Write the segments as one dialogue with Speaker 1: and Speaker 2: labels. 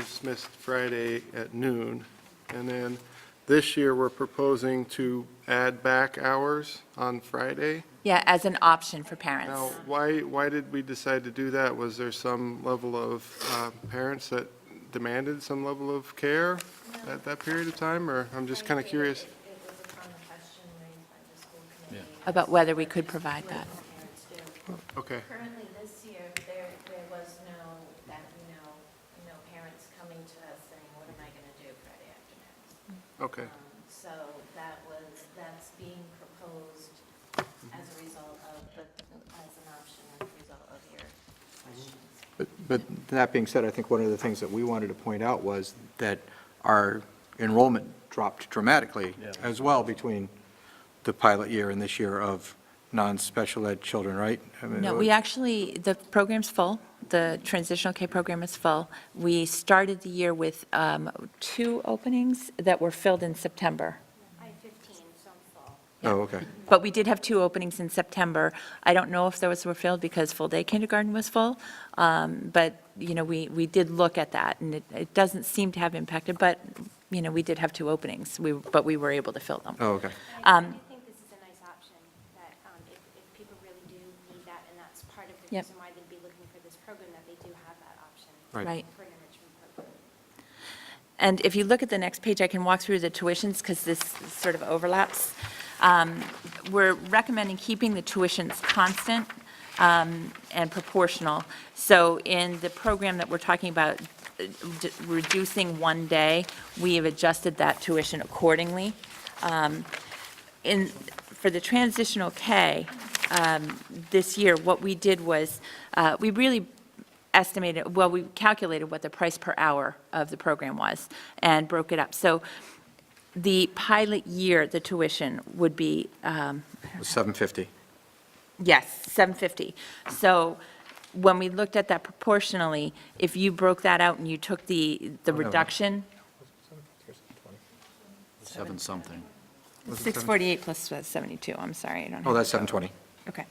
Speaker 1: dismissed Friday at noon. And then this year, we're proposing to add back hours on Friday.
Speaker 2: Yeah, as an option for parents.
Speaker 1: Now, why, why did we decide to do that? Was there some level of uh, parents that demanded some level of care at that period of time, or I'm just kind of curious?
Speaker 3: It was upon the question raised by the school committee.
Speaker 2: About whether we could provide that.
Speaker 3: What parents do.
Speaker 1: Okay,
Speaker 3: Currently, this year, there, there was no, that, you know, you know, parents coming to us saying, what am I going to do Friday afternoon?
Speaker 1: okay,
Speaker 3: Um, So that was, that's being proposed
Speaker 1: Mm-hmm.
Speaker 3: as a result of, the as an option, as a result of your
Speaker 1: Mm-hmm.
Speaker 3: questions.
Speaker 4: But- But that being said, I think one of the things that we wanted to point out was that our enrollment dropped dramatically as well between the pilot year and this year of non-special ed children, right? I mean, oh,
Speaker 2: No, we actually, the program's full. The transitional K program is full. We started the year with um, two openings that were filled in September.
Speaker 3: I fifteen, some fall.
Speaker 4: Oh, okay.
Speaker 2: But we did have two openings in September. I don't know if those were filled because full-day kindergarten was full, um, but, you know, we, we did look at that, and it, it doesn't seem to have impacted, but, you know, we did have two openings, we, but we were able to fill them.
Speaker 4: Oh, okay.
Speaker 5: I
Speaker 2: Um,
Speaker 5: do think this is a nice option, that um, if, if people really do need that, and that's part of the
Speaker 2: Yep.
Speaker 5: reason why they'd be looking for this program, that they do have that option.
Speaker 4: Right.
Speaker 2: Right.
Speaker 5: For an enrichment program.
Speaker 2: And if you look at the next page, I can walk through the tuitions because this sort of overlaps. Um, We're recommending keeping the tuitions constant um, and proportional. So in the program that we're talking about, uh, d- reducing one day, we have adjusted that tuition accordingly. Um, In, for the transitional K, um, this year, what we did was, uh, we really estimated, well, we calculated what the price per hour of the program was and broke it up. So the pilot year, the tuition would be, um,
Speaker 4: 750.
Speaker 2: yes, 750. So when we looked at that proportionally, if you broke that out and you took the, the
Speaker 4: Oh, no.
Speaker 2: reduction,
Speaker 6: Seven something.
Speaker 4: Was it
Speaker 2: 648 plus 72, I'm sorry, I don't have.
Speaker 4: Oh,
Speaker 2: it.
Speaker 4: that's 720.
Speaker 2: Okay.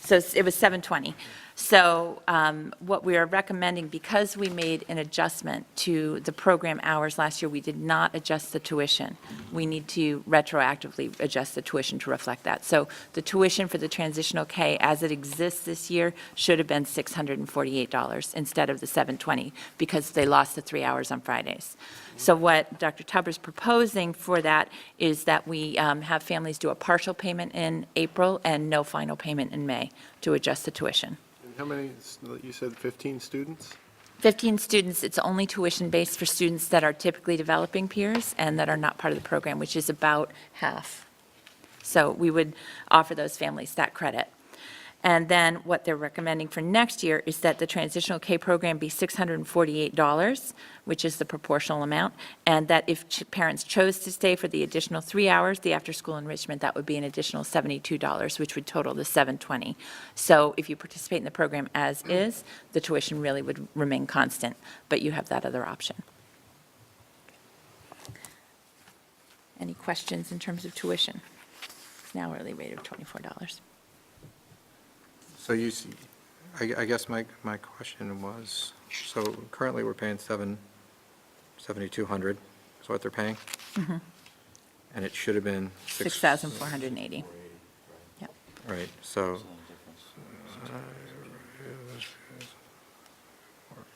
Speaker 2: So s- it was 720. So um, what we are recommending, because we made an adjustment to the program hours last year, we did not adjust the tuition. We need to retroactively adjust the tuition to reflect that. So the tuition for the transitional K, as it exists this year, should have been $648 instead of the 720, because they lost the three hours on Fridays. So what Dr. Tupper's proposing for that is that we um, have families do a partial payment in April and no final payment in May to adjust the tuition.
Speaker 1: And how many, you said 15 students?
Speaker 2: 15 students, it's only tuition-based for students that are typically developing peers and that are not part of the program, which is about half. So we would offer those families that credit. And then what they're recommending for next year is that the transitional K program be $648, which is the proportional amount, and that if ch- parents chose to stay for the additional three hours, the after-school enrichment, that would be an additional $72, which would total the 720. So if you participate in the program as is, the tuition really would remain constant, but you have that other option. Any questions in terms of tuition? It's now hourly rate of $24.
Speaker 4: So you, see- I I guess my, my question was, so currently we're paying 7, 7,200 is what they're paying?
Speaker 2: Mm-hmm.
Speaker 4: And it should have been 6.
Speaker 2: 6,480. Yep.
Speaker 4: Right, so. uh,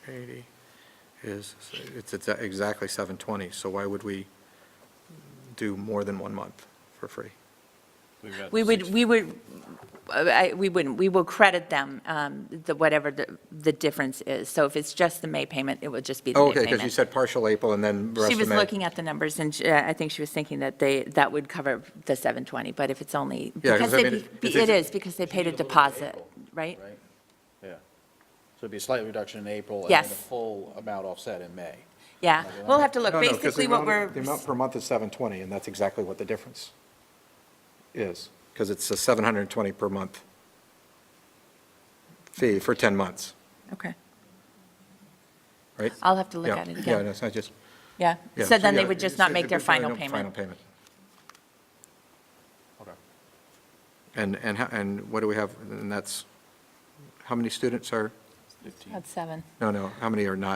Speaker 4: Eighty is, it's exa- exactly seven twenty, so why would we do more than one month for free?
Speaker 2: We would, we would, uh, I- we wouldn't, we will credit them, um, the, whatever the, the difference is. So if it's just the May payment, it will just be the
Speaker 4: Oh,
Speaker 2: May
Speaker 4: okay,
Speaker 2: payment.
Speaker 4: because you said partial April and then rest of May.
Speaker 2: She was looking at the numbers, and she- I think she was thinking that they, that would cover the 720, but if it's only,
Speaker 4: 'cause
Speaker 2: because they,
Speaker 4: I mean,
Speaker 2: be-
Speaker 4: it's-
Speaker 2: it
Speaker 4: it's-
Speaker 2: is, because they paid a
Speaker 6: Should be a little bit
Speaker 2: deposit,
Speaker 6: April,
Speaker 2: right?
Speaker 6: Right? Yeah. So it'd be a slight reduction in April. And then
Speaker 2: Yes.
Speaker 6: the full amount offset in May.
Speaker 2: Yeah, we'll have to look.
Speaker 4: No, no, 'cause the
Speaker 2: Basically, what
Speaker 4: amount-
Speaker 2: we're,
Speaker 4: The amount per month is seven twenty, and that's exactly what the difference is, because it's a seven hundred and twenty per month fee for ten months,
Speaker 2: okay,
Speaker 4: right?
Speaker 2: I'll have to look
Speaker 4: Yeah,
Speaker 2: at it
Speaker 4: Yeah,
Speaker 2: again.
Speaker 4: no, it's not just.
Speaker 2: yeah.
Speaker 4: yeah,
Speaker 2: So then they
Speaker 4: yeah,
Speaker 2: would just
Speaker 4: it's-
Speaker 2: not
Speaker 4: it
Speaker 2: make their
Speaker 4: would really
Speaker 2: final
Speaker 4: no Final
Speaker 2: payment.
Speaker 4: payment.
Speaker 6: Okay.
Speaker 4: And, and, how- and what do we have, and that's, how many students are,
Speaker 2: That's seven.
Speaker 4: no, no, how many are not